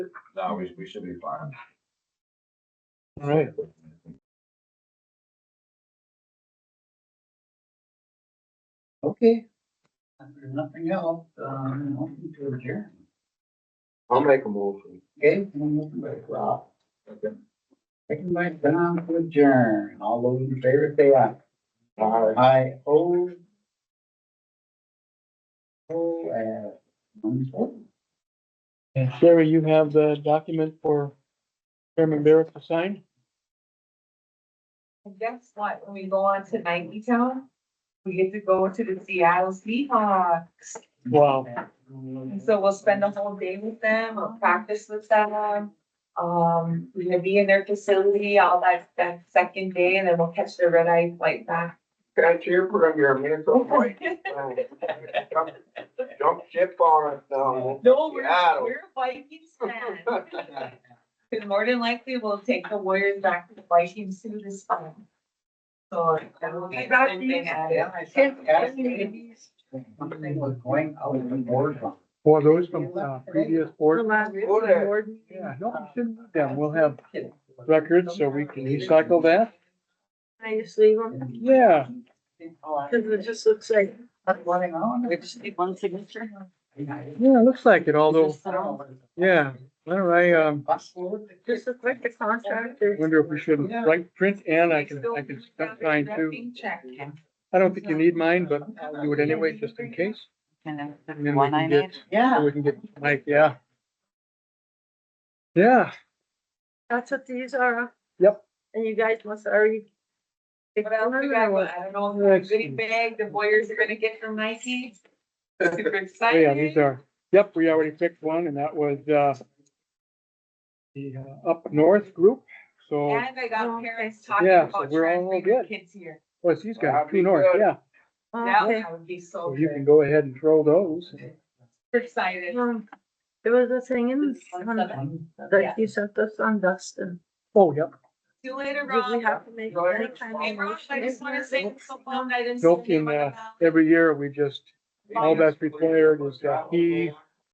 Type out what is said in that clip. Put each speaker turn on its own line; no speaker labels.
always, we should be fine.
All right. Okay,
If there's nothing else, um, motion to adjourn.
I'll make a motion.
Okay, one motion by Rob, second by Don to adjourn. All those in favor say aye.
Aye.
Aye, oh. Oh, uh, one second.
and Sherry, you have the document for Chairman Barrett to sign?
And guess what? When we go on to Nike Town, we get to go to the Seattle Seahawks.
Mhm.
Wow.
And so we'll spend the whole day with them, we'll practice with them. Um, we're gonna be in their facility all that, that second day and then we'll catch the red eye flight back.
Catch your program, you're a Minnesota boy. Oh, Jump- Jump ship on us now.
No, we're,
Seattle.
we're Vikings fans. And more than likely, we'll take the Warriors back to the Vikings too this time. So that will be.
Got
something added.
Yeah, I thought that was- Something was going out of the board.
Well, those from uh, previous board.
Go there.
Yeah, no, we shouldn't do them. We'll have records so we can recycle that.
I just leave them,
Yeah.
because it just looks like
Running on.
one signature.
Yeah, it looks like it, although, yeah, I don't know, I, um,
Just looks like the contract is.
wonder if we should write print and I can, I can sign too. I don't think you need mine, but I'll do it anyway, just in case. And then we can get,
Yeah.
then we can get, Mike, yeah. Yeah,
That's what these are.
Yep.
And you guys must already.
What else we got? Well, I don't know, the goodie bag, the Warriors are gonna get from Nike. Super
oh yeah, these
excited.
are, yep, we already picked one and that was, uh, the uh, Up North group, so,
And I got parents talking
Yeah, so
about
we're all
trying to bring their
good.
kids here.
what's oh, these guys,
That'd be
True North,
good.
yeah.
That
Okay.
would- that would be so
So you can
good.
go ahead and throw those.
Super excited.
Um, There was a thing in, on-
Yeah.
that you sent us on Dustin.
Oh, yep,
See you later,
Did we
Rob.
have to make
Go
any
ahead.
kind
Hey,
of
Rob, I just wanna say
motion?
it's so long I didn't. see
Joking,
you.
uh, every year we just, all that's required is, uh,
that
he-